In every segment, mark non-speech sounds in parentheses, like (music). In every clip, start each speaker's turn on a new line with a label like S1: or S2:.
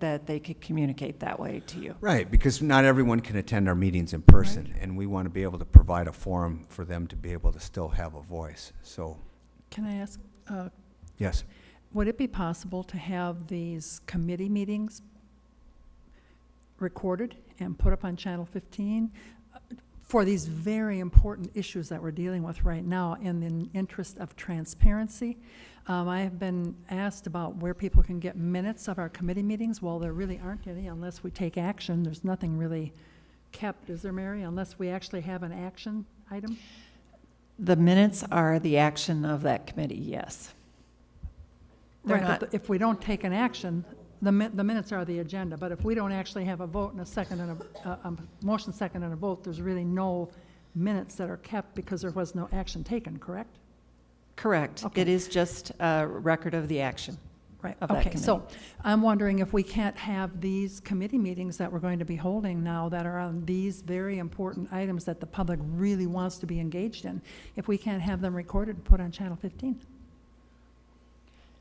S1: that they could communicate that way to you.
S2: Right, because not everyone can attend our meetings in person, and we want to be able to provide a forum for them to be able to still have a voice. So,
S3: Can I ask, uh,
S2: yes,
S3: would it be possible to have these committee meetings recorded and put up on Channel 15 for these very important issues that we're dealing with right now in the interest of transparency? Um, I have been asked about where people can get minutes of our committee meetings. Well, there really aren't any unless we take action. There's nothing really kept, is there, Mary, unless we actually have an action item?
S1: The minutes are the action of that committee, yes. They're
S3: Right,
S1: not-
S3: but if we don't take an action, the min, the minutes are the agenda, but if we don't actually have a vote and a second and a, a, a motion second and a vote, there's really no minutes that are kept because there was no action taken, correct?
S1: Correct. It
S3: Okay.
S1: is just a record of the action.
S3: Right,
S1: of that
S3: okay, so I'm wondering if we can't have these committee meetings that we're going to be holding now that are on these very important items that the public really wants to be engaged in, if we can't have them recorded and put on Channel fifteen?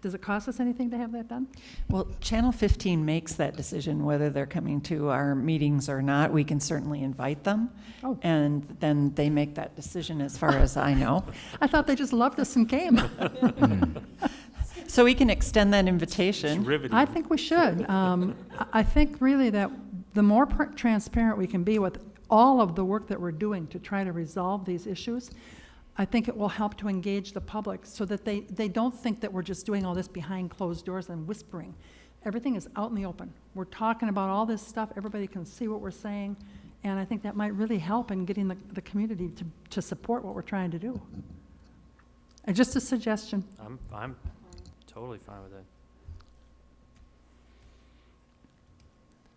S3: Does it cost us anything to have that done?
S1: Well, Channel 15 makes that decision whether they're coming to our meetings or not. We can certainly invite them,
S3: Oh.
S1: and then they make that decision as far as I know.
S3: I thought they just loved us and came.
S1: So we can extend that invitation.
S4: Riveting.
S3: I think we should. Um, I- I think really that the more pr- transparent we can be with all of the work that we're doing to try to resolve these issues, I think it will help to engage the public so that they, they don't think that we're just doing all this behind closed doors and whispering. Everything is out in the open. We're talking about all this stuff, everybody can see what we're saying, and I think that might really help in getting the, the community to, to support what we're trying to do. And just a suggestion.
S4: I'm, I'm totally fine with it.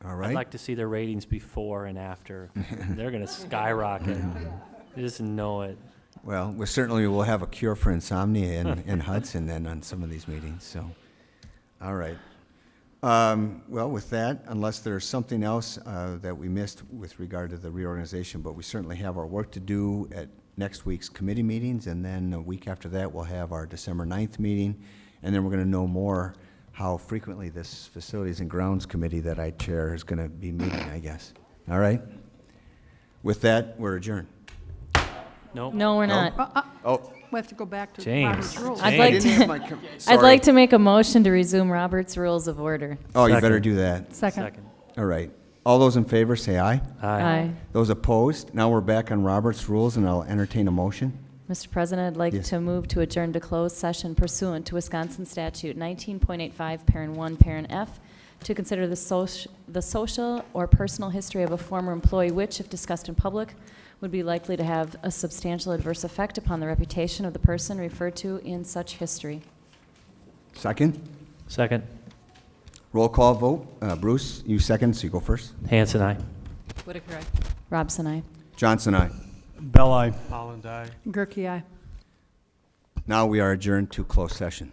S2: all
S4: I'd
S2: right.
S4: like to see their ratings before and after. They're gonna skyrocket. You just know it.
S2: Well, we certainly will have a cure for insomnia in, (laughs) in Hudson then on some of these meetings, so, all right. Um, well, with that, unless there's something else, uh, that we missed with regard to the reorganization, but we certainly have our work to do at next week's committee meetings, and then a week after that, we'll have our December 9th meeting, and then we're gonna know more how frequently this Facilities and Grounds Committee that I chair is gonna be meeting, I guess. All right? With that, we're adjourned.
S4: Nope.
S5: No, we're
S2: No?
S5: not.
S3: Uh, uh,
S2: Oh,
S3: We have to go back to
S4: James.
S3: Robert's rules.
S5: I'd
S4: Hey,
S5: like
S2: didn't have
S5: to,
S2: my com-
S5: (laughs) I'd
S2: sorry.
S5: like to make a motion to resume Robert's Rules of Order.
S2: Oh, you better
S4: Second.
S2: do that.
S3: Second.
S4: Second.
S2: All right. All those in favor, say aye.
S5: Aye.
S2: Those opposed? Now we're back on Robert's rules, and I'll entertain a motion.
S5: Mr. President, I'd like
S2: Yes.
S5: to move to adjourn to closed session pursuant to Wisconsin Statute 19.85, Parent 1, Parent F, to consider the soc- the social or personal history of a former employee which, if discussed in public, would be likely to have a substantial adverse effect upon the reputation of the person referred to in such history.
S2: Second?
S4: Second.
S2: Roll call vote. Uh, Bruce, you second, so you go first.
S4: Hanson, aye.
S5: Whitaker, aye. Robson, aye.
S2: Johnson, aye.
S6: Bell eye. Holland eye.
S3: Gerke, aye.
S2: Now we are adjourned to closed session.